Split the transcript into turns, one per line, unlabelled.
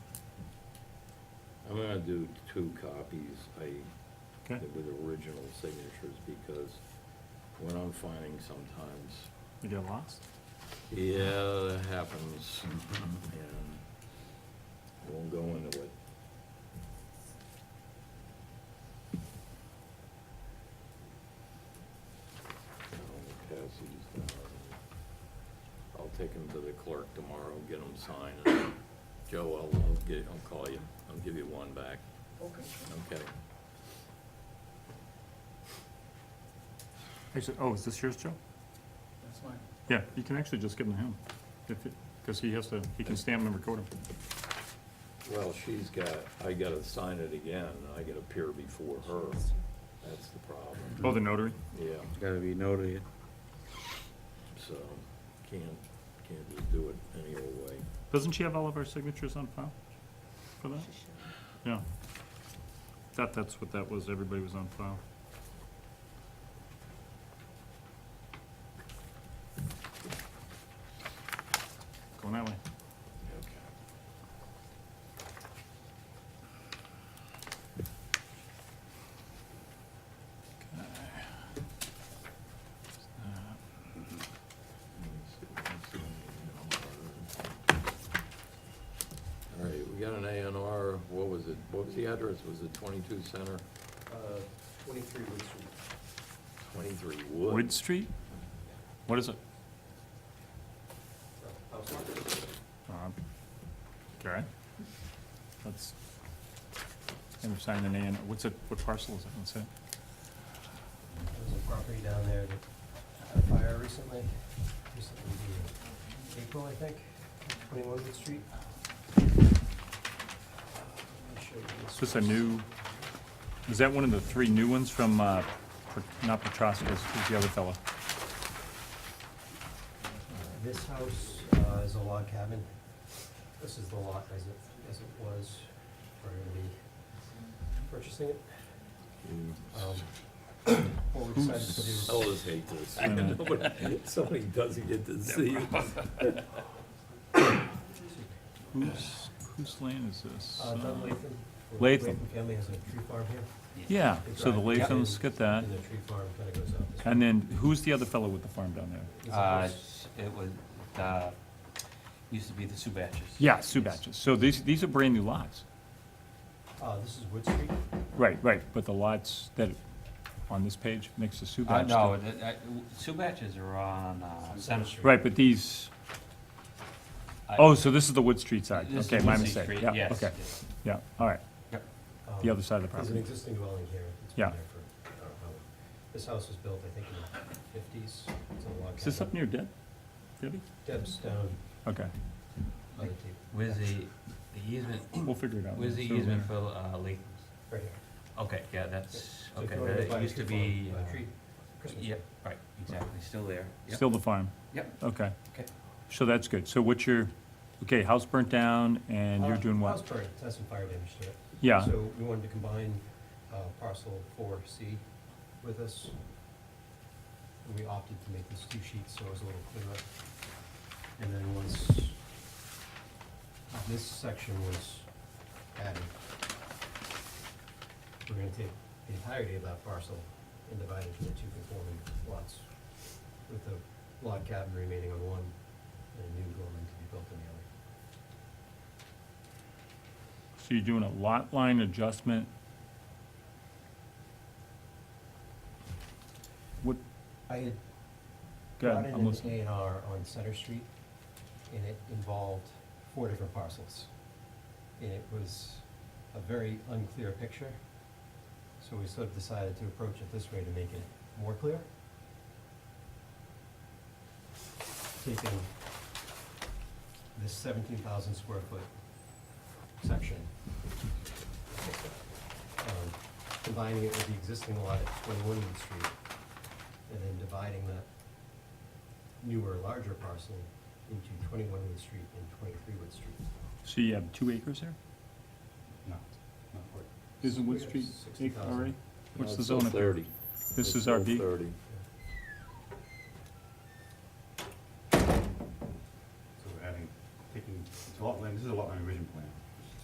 I'm gonna do two copies, I,
Okay.
with original signatures, because when I'm finding sometimes,
You get lost?
yeah, that happens, and I won't go into it. I'll pass these down. I'll take them to the clerk tomorrow, get them signed, and Joe, I'll, I'll get, I'll call you, I'll give you one back.
Okay.
Okay.
Actually, oh, is this yours, Joe?
That's mine.
Yeah, you can actually just give them to him, if, it- cause he has to, he can stamp them and record them.
Well, she's got, I gotta sign it again, and I gotta appear before her. That's the problem,
Oh, the notary?
yeah,
Gotta be notary.
so, can't, can't just do it any old way.
Doesn't she have all of our signatures on file for that? Yeah. That, that's what that was, everybody was on file. Going that way.
All right, we got an A and R, what was it, what was the address, was it twenty-two Center,
Uh, twenty-three Wood Street.
twenty-three
Wood
Woods?
Street? What is it?
I was talking to
Um, Okay. That's, never signed an A and, what's it, what parcel is it, what's it?
There's a property down there that had a fire recently, recently, in April, I think, twenty-one Wood Street. Let me show you
Is
this.
this a new, is that one of the three new ones from, uh, Pe- not Petrosca's, who's the other fellow?
Uh, This house uh, is a log cabin. This is the lot as it, as it was prior to me purchasing it. Um, What we're excited to do.
I always hate this,
I know.
Nobody- somebody doesn't get to see it.
Whose, whose land is this?
Uh, Doug Latham. the
Latham.
family has a tree farm here.
Yeah, so the
Right.
Lathams, get that.
And the tree farm kind of goes out this way.
And then who's the other fellow with the farm down there?
It's a
Uh,
house.
it was, uh, used to be the Subatches.
Yeah, Subatches. So these, these are brand new lots.
Uh, this is Wood Street.
Right, right, but the lots that, on this page, next to
Uh,
Subatch.
no, it- it- Subatches are on, uh, Center Street.
Right, but these,
I-
oh, so this is the Wood Street side.
This is
Okay, my
Lindsay
mistake.
Street,
Yeah,
yes,
okay.
yes.
Yeah, all right,
Yep.
the
Um,
other side of the
There's an
property.
existing dwelling here. It's been
Yeah.
there for, I don't know. This house was built, I think, in the fifties. It's a log cabin.
Is this up near Deb? Debbie?
Deb's down
Okay,
on the tape.
Where's the, the easement,
we'll figure it out.
where's the
So,
easement for, uh, Latham's?
Right here.
Okay, yeah, that's,
So if
okay,
you wanted to buy
that
a
used to
tree
be,
farm, buy a
uh,
tree- Christmas
yeah,
tree.
right, exactly, still there. Yep,
Still the farm,
Yep,
okay.
okay.
So that's good. So what's your, okay, house burnt down and you're
Uh,
doing
House
what?
burning, it has some fire damage to it.
Yeah,
So we wanted to combine uh, parcel four C with this. And We opted to make this two sheets, so it was a little clearer. And then once this section was added, we're gonna take the entirety of that parcel and divide it into two conforming lots, with the log cabin remaining on one and a new dwelling to be built on the other.
so you're doing a lot line adjustment. What,
I had
Go ahead,
brought in
I'm
an
listening.
A and R on Center Street, and it involved four different parcels. And it was a very unclear picture, so we sort of decided to approach it this way to make it more clear. Taking this seventeen thousand square foot section. um, Combining it with the existing lot at twenty-one Wood Street, and then dividing that newer, larger parcel into twenty-one Wood Street and twenty-three Wood Street.
so you have two acres there?
No, not quite.
Isn't
We
Wood
have
Street
60,000.
acre already? What's the
It's still
zone up there?
Thirty.
This
It's
is
still
RB?
Thirty.
So we're adding, taking, it's a lot line, this is a lot line revision plan.